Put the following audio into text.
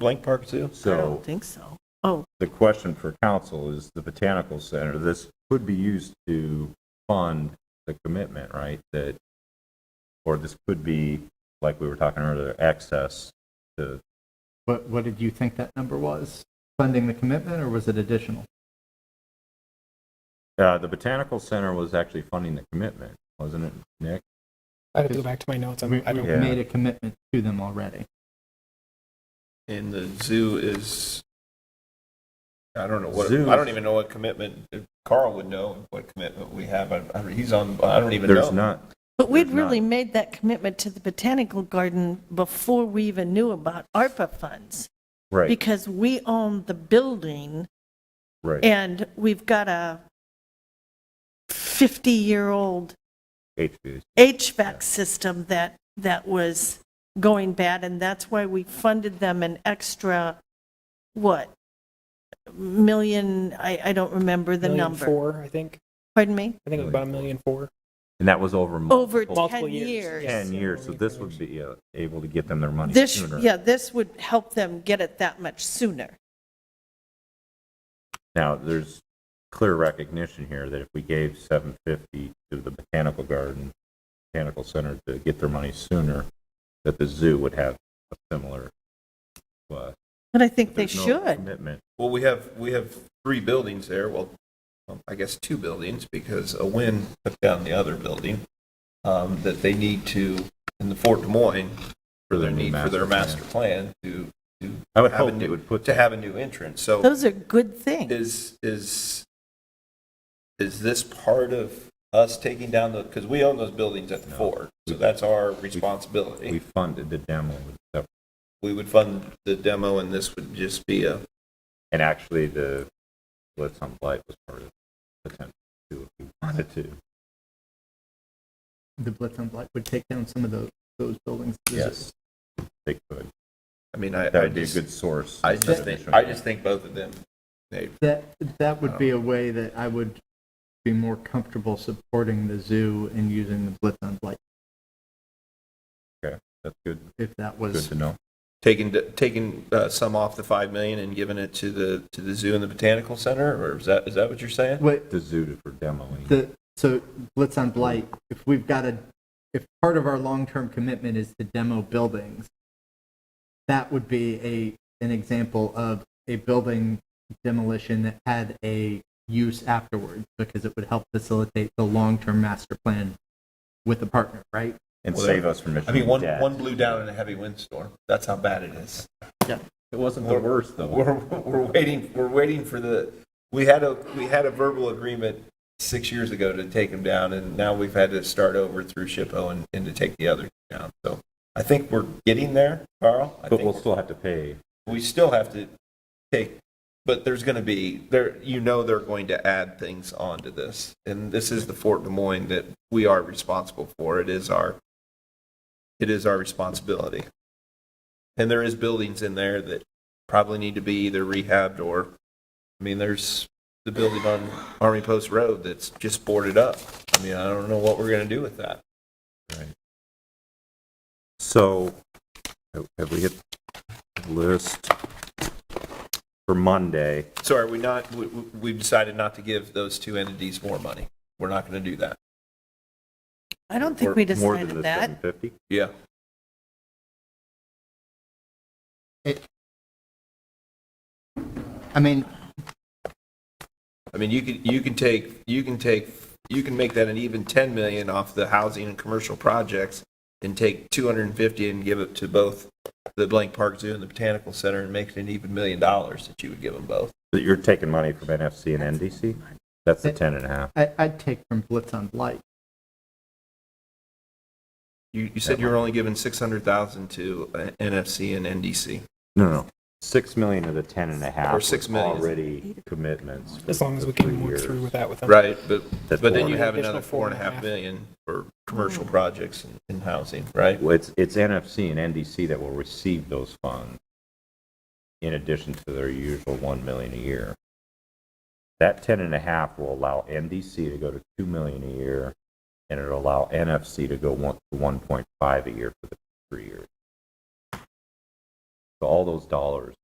Blank Park Zoo? So. I don't think so. Oh, the question for council is the Botanical Center, this could be used to fund the commitment, right? That, or this could be, like we were talking earlier, access to, What, what did you think that number was? Funding the commitment, or was it additional? uh, the Botanical Center was actually funding the commitment, wasn't it, Nick? I have to go back to my notes. I'm, We, I we don't. Yeah. made a commitment to them already. And the zoo is, I don't know what, Zoo I is- don't even know what commitment, Carl would know what commitment we have. I- I- He's on, I don't even know. There's not, but we'd There's not. really made that commitment to the Botanical Garden before we even knew about ARPA funds. right, Because we own the building right, and we've got a 50-year-old HVAC, HVAC system that, that was going bad, and that's why we funded them an extra, what? Million, I, I don't remember the million number. Four, I think. Pardon me? I think it was about a million four. and that was over Over multiple- 10 Multiple years, years. yeah. Ten years, so this would be uh, able to get them their money This, sooner. yeah, this would help them get it that much sooner. Now, there's clear recognition here that if we gave seven fifty to the Botanical Garden, Botanical Center to get their money sooner, that the zoo would have a similar, uh, But I think they there's no should. Commitment. Well, we have, we have three buildings there, well, um, I guess two buildings, because a wind took down the other building, um, that they need to, in the Fort Des Moines, for their their new need for their master master plan to, to. I would have a hope new- they would put To that- have a new entrance, so. Those are good things. Is, is, is this part of us taking down the, because we own those buildings at the No. fort, so that's our We responsibility. funded the demo with stuff, We would fund the demo and this would just be a, and actually the Blitz on Blight was part of the attempt to, do if we wanted to. The Blitz on Blight would take down some of those, those buildings. They could. I mean, I. That I would be a just- good source. I just of think, additional- I just think both of them, they, That, that would be a way that I would be more comfortable supporting the zoo and using the Blitz on Blight, Okay, that's good, if that good was, to know. taking, taking uh, some off the 5 million and giving it to the, to the zoo and the botanical center, or is that, is that what you're saying? what, The zoo for demoing. The, so Blitz on Blight, if we've got a, if part of our long-term commitment is to demo buildings, that would be a, an example of a building demolition that had a use afterwards because it would help facilitate the long-term master plan with the partner, right? and Well, save us from I mission mean, one, one blew down in a heavy windstorm, that's how bad it is. It wasn't the worst We're, we're waiting, we're waiting for the, we had a, we had a verbal agreement six years ago to take them down, and now we've had to start over through SHPO and, and to take the other down. So I think we're getting there, Carl. I But think we'll we're- still have to pay. we still have to take, but there's going to be, there, you know they're going to add things onto this. And this is the Fort Des Moines that we are responsible for. It is our, it is our responsibility. And there is buildings in there that probably need to be either rehabbed or, I mean, there's the building on Army Post Road that's just boarded up. I mean, I don't know what we're going to do with that. So have- have we hit the list for Monday? So are we not, we, we- we've decided not to give those two entities more money. We're not going to do that. I don't think Or we more than the decided that. 750? Yeah. I mean, I mean, you can, you can take, you can take, you can make that an even 10 million off the housing and commercial projects and take 250 and give it to both the Blank Park Zoo and the Botanical Center and make it an even million dollars that you would give them both. That you're taking money from NFC and NDC? That's the 10 and a half. I, I'd take from Blitz on Blight. You, you said you were only giving 600,000 to uh, NFC and NDC. No, no, no. 6 million of the 10 and a half. Or six was million. Already commitments. for As long as the we three can work years. through with that with them. Right, but, That's but then four you and a have half. another four and a half million for commercial projects and- and housing, right? Well, it's, it's NFC and NDC that will receive those funds in addition to their usual 1 million a year. That 10 and a half will allow NDC to go to 2 million a year, and it'll allow NFC to go one, to 1.5 a year for the three years. So all those dollars